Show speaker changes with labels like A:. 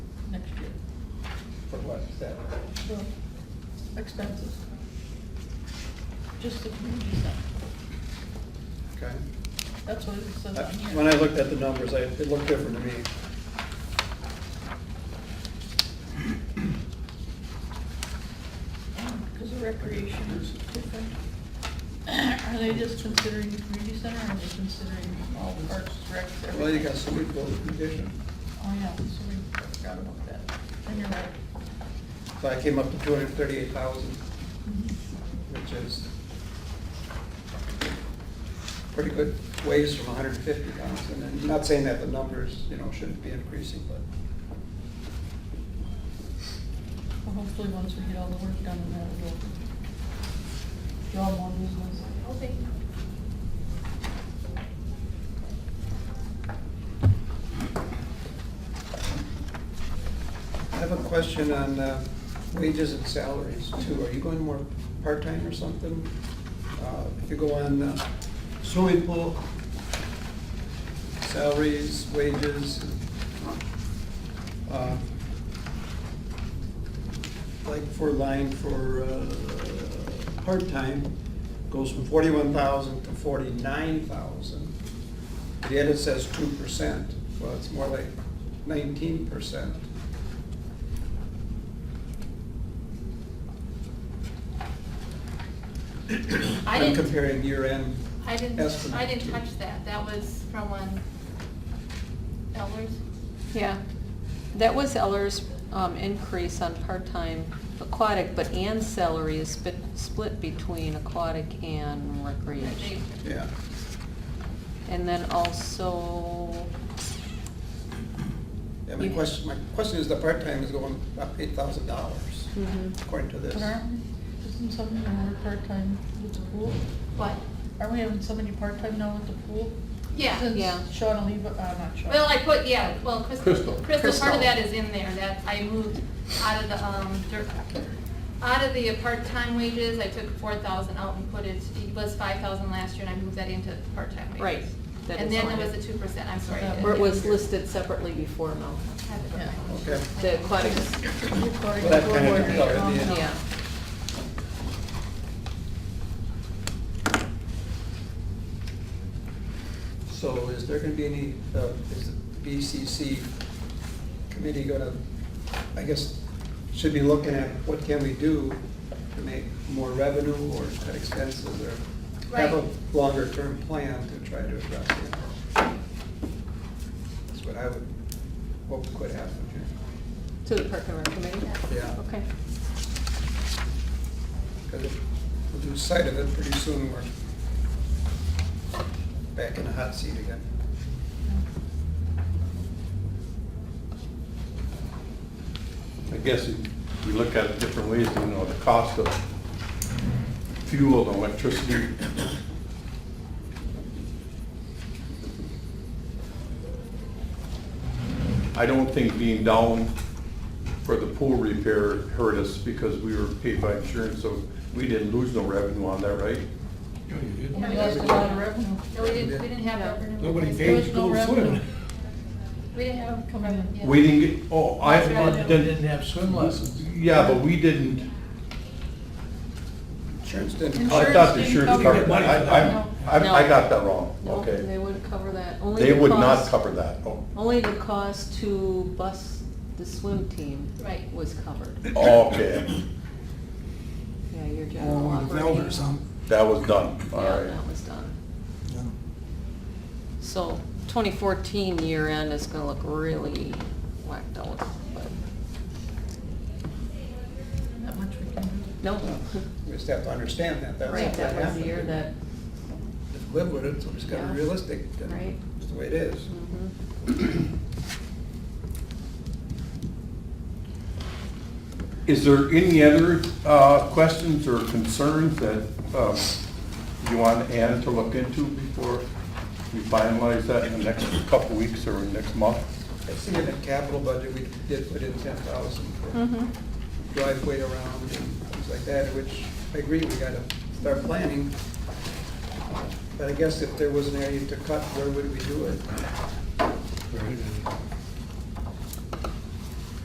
A: for what, seven?
B: for expenses. Just the community center,
A: Okay.
B: that's what it says
A: I-
B: on here.
A: When I looked at the numbers, I, it looked different to me.
B: Because the recreation is different. Are they just considering the community center, or are they considering all the parks, recs, everything?
A: Well, you got swimming pool condition,
B: Oh, yeah, so we forgot about that, and you're right.
A: so I came up to two hundred and thirty-eight thousand,
B: Mm-hmm.
A: which is pretty good ways from hundred and fifty thousand, and not saying that the numbers, you know, shouldn't be increasing, but
B: Well, hopefully, once we get all the work done, and that will draw more business.
C: Okay.
A: I have a question on uh, wages and salaries too, are you going more part-time or something? Uh, If you go on uh, swimming pool, salaries, wages, uh, like for line for uh, part-time, goes from forty-one thousand to forty-nine thousand. Yet it says two percent, well, it's more like nineteen percent.
C: I
A: I'm
C: didn't,
A: comparing year-end,
C: I didn't,
A: estimate.
C: I didn't touch that, that was from one Elders.
D: Yeah, that was Eller's um, increase on part-time aquatic, but Ann's salary is split, split between aquatic and recreation.
A: yeah.
D: And then also,
A: Yeah, my
D: You-
A: question, my question is the part-time is going up eight thousand dollars
D: mhm,
A: according to this.
B: But aren't, isn't somebody gonna work part-time with the pool?
C: What?
B: Aren't we having somebody part-time now with the pool?
C: Yeah,
B: Since
D: Yeah.
B: Sean Oliva, uh, not Sean.
C: well, I put, yeah, well, Crystal,
E: Crystal.
C: Crystal, part
D: Crystal.
C: of that is in there, that I moved out of the, um, dir- out of the part-time wages, I took four thousand out and put it, it was five thousand last year, and I moved that into part-time wages.
D: right. that
C: And
D: is
C: then
D: on
C: there was
D: it.
C: the two percent, I'm sorry.
B: Yeah.
D: Or it was listed separately before, Mel.
C: I have it right now.
A: Okay,
D: The aquatics,
B: Recording,
A: Well, that kinda
B: recording,
A: covered the-
B: um,
D: yeah.
A: so is there gonna be any, uh, is the BCC committee gonna, I guess, should be looking at what can we do to make more revenue or cut expenses or have
C: Right.
A: a longer-term plan to try to address it? That's what I would hope could happen here.
D: To the Park and Rec Committee?
A: Yeah.
D: Okay.
A: Because if we lose sight of it, pretty soon we're back in the hot seat again.
E: I guess if you look at it different ways, you know, the cost of fuel and electricity. I don't think being down for the pool repair hurt us because we were paid by insurance, so we didn't lose no revenue on that, right?
B: We lost a lot of revenue.
C: No, we didn't, we didn't have
D: Yeah.
C: revenue.
F: Nobody
B: There
F: paid
B: was
F: to
B: no
F: go
B: revenue.
F: swim.
C: We didn't have
B: Coming in.
C: Yeah.
E: We didn't get, oh, I
F: They didn't
E: didn't,
F: have swim lessons.
E: yeah, but we didn't,
A: Insurance didn't.
B: Insurance
E: I thought the
B: didn't
E: insurance
B: cover
E: covered
B: it.
E: that. I, I, I I got that wrong,
D: No,
E: okay.
D: they wouldn't cover that. Only
E: They
D: the
E: would not
D: cost-
E: cover that. Oh,
D: Only the cost to bus the swim team
C: Right.
D: was covered.
E: Oh, Okay,
D: Yeah, your general
F: Or with
D: operating.
F: Elder or something.
E: that was done, all
D: Yeah,
E: right.
D: that was done.
F: Yeah.
D: So twenty fourteen year end is gonna look really whacked out, but,
B: Not much we can do.
D: no.
A: We just have to understand that, that's
D: Right,
A: what
D: that was
A: happened.
D: the year that,
A: Just Live with it, so we just gotta
D: Yeah.
A: be realistic. and
D: Right.
A: It's the way it is.
D: mhm.
E: Is there any other uh, questions or concerns that um, you want Ann to look into before we finalize that in the next couple weeks or next month?
A: I see in the capital budget, we did put in ten thousand for
D: Mhm.
A: driveway around and things like that, which I agree, we gotta start planning. But I guess if there was an area to cut, where would we do it?